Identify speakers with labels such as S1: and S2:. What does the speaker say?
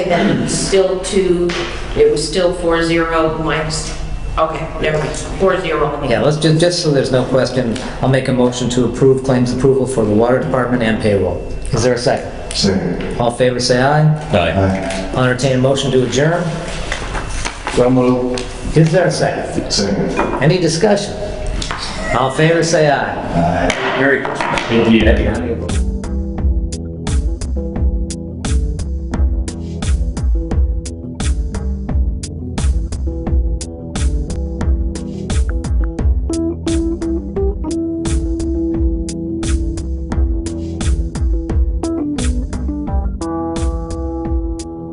S1: Then still two, it was still four zero minus, okay, never mind, four zero.
S2: Yeah, let's, just, just so there's no question, I'll make a motion to approve claims approval for the water department and payroll. Is there a second?
S3: Second.
S2: All in favor, say aye.
S4: Aye.
S2: I'll entertain a motion to adjourn.
S3: So moved.
S2: Is there a second?
S3: Second.
S2: Any discussion? All in favor, say aye.
S3: Aye.
S4: Merry Christmas. Indeed.